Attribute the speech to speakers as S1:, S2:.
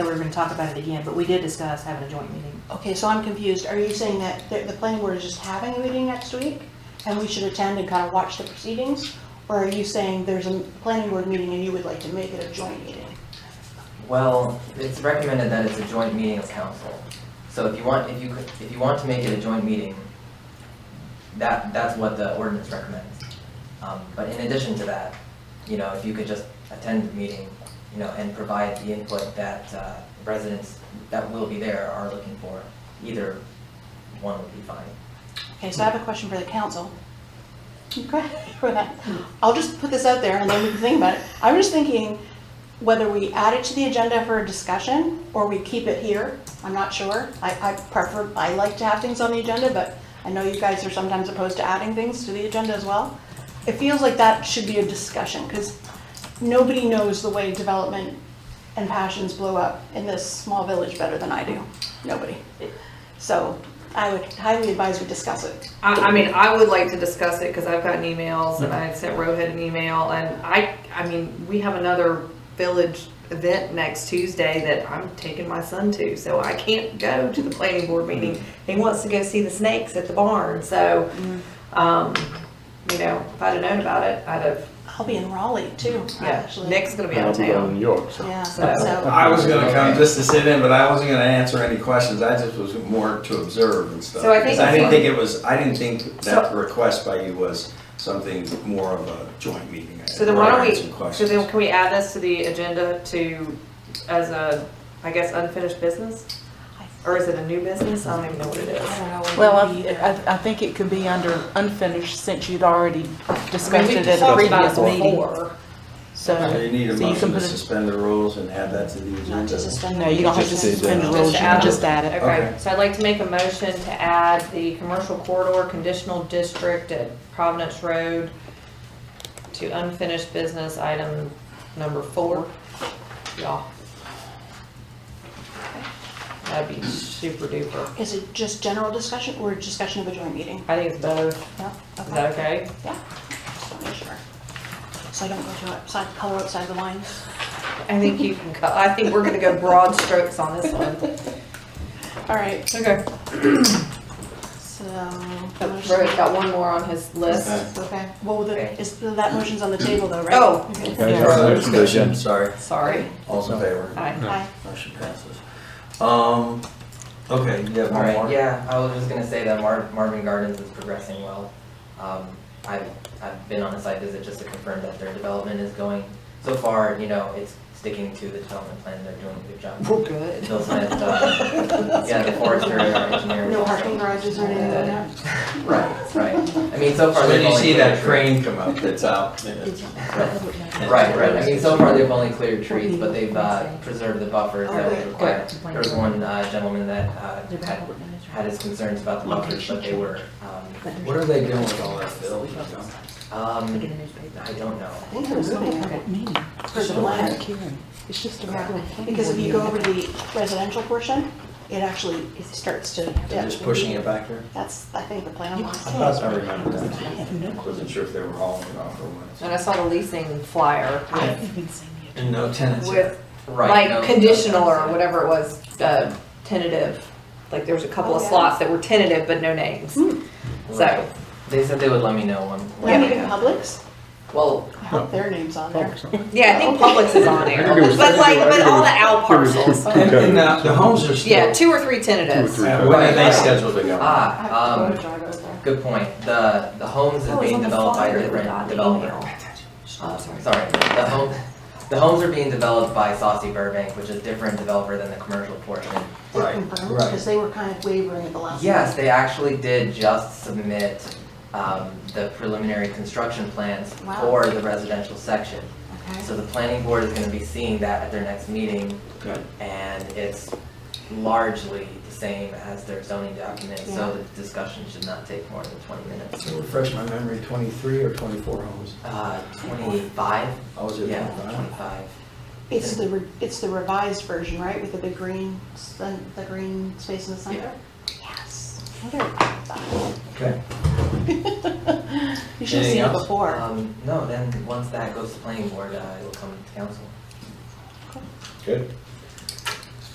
S1: we were gonna talk about it again, but we did discuss having a joint meeting.
S2: Okay, so I'm confused. Are you saying that the, the planning board is just having a meeting next week and we should attend and kind of watch the proceedings? Or are you saying there's a planning board meeting and you would like to make it a joint meeting?
S3: Well, it's recommended that it's a joint meeting of council. So if you want, if you could, if you want to make it a joint meeting, that, that's what the ordinance recommends. Um, but in addition to that, you know, if you could just attend the meeting, you know, and provide the input that, uh, residents that will be there are looking for, either one would be fine.
S2: Okay, so I have a question for the council. Okay, for that. I'll just put this out there and then we can think about it. I was thinking whether we add it to the agenda for a discussion or we keep it here. I'm not sure. I, I prefer, I like to have things on the agenda, but I know you guys are sometimes opposed to adding things to the agenda as well. It feels like that should be a discussion because nobody knows the way development and passions blow up in this small village better than I do. Nobody. So I would highly advise we discuss it.
S4: I, I mean, I would like to discuss it because I've gotten emails and I sent Rohit an email and I, I mean, we have another village event next Tuesday that I'm taking my son to, so I can't go to the planning board meeting. He wants to go see the snakes at the barn, so, um, you know, if I'd have known about it, I'd have,
S2: I'll be in Raleigh too,
S4: yeah,
S2: actually.
S4: Nick's gonna be out
S5: I'll
S4: of
S5: be going to
S4: town.
S5: New York, so.
S2: Yeah,
S4: So-
S2: so,
S6: I was gonna come just to sit in, but I wasn't gonna answer any questions, I just was more to observe and stuff.
S4: So I think-
S6: 'Cause I didn't think it was, I didn't think that
S4: So-
S6: the request by you was something more of a joint meeting. I
S4: So then why don't
S6: had
S4: we,
S6: some
S4: so then
S6: questions.
S4: can we add this to the agenda to, as a, I guess, unfinished business? Or is it a new business? I don't even know what it is.
S2: I don't know. what
S7: Well,
S2: we-
S7: I,
S4: uh,
S7: I- I think it could be under unfinished since you'd already
S4: I mean,
S7: discussed
S4: we've
S7: it at a
S4: talked about
S7: previous
S4: it
S7: meeting.
S4: before.
S6: So
S7: So,
S6: you need a
S7: so you can
S6: motion to
S7: put it-
S6: suspend the rules and add that to the
S2: Not to
S6: agenda.
S2: suspend.
S7: no, you don't have to
S2: Just
S7: suspend the
S2: add-
S7: rules, you
S4: add
S7: can just add it.
S4: Okay,
S6: Okay.
S4: so I'd like to make a motion to add the commercial corridor conditional district at Providence Road to unfinished business item number four. Y'all. That'd be super duper.
S2: Is it just general discussion or discussion of a joint meeting?
S4: I think it's better. Is
S2: Yeah, okay,
S4: that okay?
S2: yeah, just wanna make sure. So I don't go to outside, color outside the lines.
S4: I think you can, cut- I think we're gonna go broad strokes on this one.
S2: All right,
S4: Okay.
S2: so.
S4: Rohit got one more on his list.
S2: Okay, well, the,
S4: Okay.
S2: is, that motion's on the table though, right?
S4: Oh.
S2: Okay.
S7: Yeah.
S6: No discussion, sorry,
S4: Sorry.
S6: all's in favor,
S4: Hi.
S2: Aye.
S6: motion passes. Um, okay, you have
S3: All
S6: one
S3: right,
S6: more?
S3: yeah, I was just gonna say that Mar- Marvin Gardens is progressing well. Um, I've, I've been on a site visit just to confirm that their development is going, so far, you know, it's sticking to the development plan, they're doing a good job.
S4: We're good.
S3: Bill Smith, uh, yeah, the forester and our engineer.
S2: No parking garages or anything like that?
S6: Right.
S3: Right, I mean, so far
S6: So
S3: they've
S6: you
S3: only.
S6: see
S3: cleared
S6: that
S3: trees.
S6: crane come up that's out.
S3: Right, right, I mean, so far they've only cleared trees, but they've, uh, preserved the buffers that
S2: Okay.
S3: were required. There was one, uh, gentleman that, uh, had, had his concerns about the buffers, but they were, um,
S6: What are they doing with all that fill? you know?
S3: um, I don't know.
S2: I think they're moving it.
S7: Meeting.
S2: For the land.
S7: Karen, It's just a regular.
S2: Because if you go over to the residential portion, it actually starts to
S6: They're
S2: dip.
S6: just pushing it back there?
S2: That's, I think, the plan was.
S6: I thought I remembered that. Wasn't sure if they were hauling it off or
S4: And
S6: what.
S4: I saw the leasing flyer with,
S6: And no tenants yet.
S4: with
S3: Right. no,
S4: like conditional
S3: no,
S4: or
S3: no.
S4: whatever it was, uh, tentative. Like there was a couple of
S2: Oh, yeah. Hmm.
S4: slots that were tentative but no names. So,
S3: Right. They said they would let me know when.
S2: Let
S3: when
S2: me
S3: they
S2: get
S3: know.
S2: Publix,
S3: Well,
S2: I hope their name's on there.
S4: yeah, I think Publix is on there,
S5: I think it was-
S4: but like, but all the out
S5: There was two-
S4: parcels.
S5: two
S6: And- And
S5: categories.
S6: the, the homes are still.
S4: Yeah, two or three tentatives.
S5: Two or
S6: Uh, When are they scheduled to go?
S2: I have
S3: ah,
S2: to go
S3: um,
S2: to Jarvis there.
S3: good point. The, the homes
S4: Oh,
S3: are
S4: it was
S3: being
S4: on the
S3: developed by
S4: flyer
S3: a
S4: that we
S3: different
S4: got, the
S3: developer.
S4: email.
S3: Uh,
S4: Oh,
S3: Sorry, the home, the homes are being developed by Saucy Burbank, which is a different developer than the commercial portion.
S2: They confirmed, because they were kind of wavering at the last.
S3: Yes, they actually did just submit, um, the preliminary construction plans
S2: Wow. Mm.
S3: for the residential section.
S2: Okay.
S3: So the planning board is gonna be seeing that at their next meeting,
S6: Good.
S3: and it's largely the same as their zoning document,
S2: Yeah.
S3: so the discussion should not take more than twenty minutes.
S6: So refresh my memory, twenty-three or twenty-four homes?
S3: Uh, twenty-five?
S6: I was at
S3: Yeah,
S6: 25.
S3: twenty-five.
S2: It's the, re- it's the revised version, right, with the big green, s- the the green space in the center? Yes. I wonder about that.
S6: Okay.
S2: You should have seen
S6: Anything
S2: it
S6: else?
S2: before.
S3: Um, uh, no, then, once that goes to planning board, uh, it'll come to council.
S6: Good.